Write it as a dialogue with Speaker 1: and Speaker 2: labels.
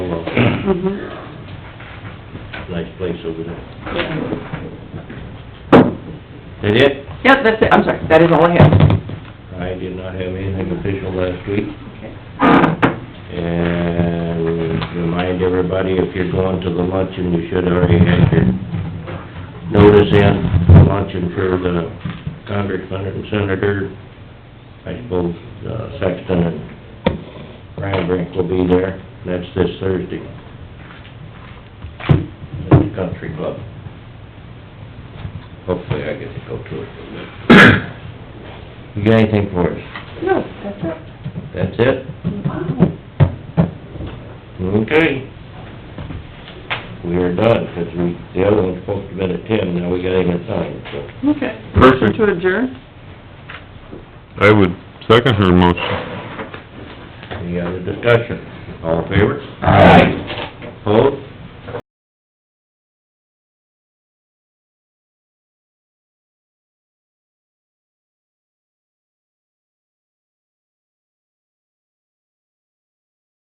Speaker 1: Nice place over there.
Speaker 2: Yeah.
Speaker 1: That it?
Speaker 2: Yep, that's it, I'm sorry, that is all I have.
Speaker 1: I did not have anything official last week.
Speaker 2: Okay.
Speaker 1: And remind everybody, if you're going to the luncheon, you should already have your notice in, the luncheon for the congressman and senator. I suppose uh, Sexton and Ryan Brink will be there. That's this Thursday. At the country club. Hopefully I get to go to it. You got anything for us?
Speaker 2: No, that's it.
Speaker 1: That's it? Okay. We are done, 'cause we, the other one's supposed to be at ten, now we got it at nine, so.
Speaker 2: Okay.
Speaker 3: Perfect.
Speaker 2: Motion To adjourn?
Speaker 3: I would second her motion.
Speaker 1: Any other discussion? All in favor?
Speaker 3: Aye.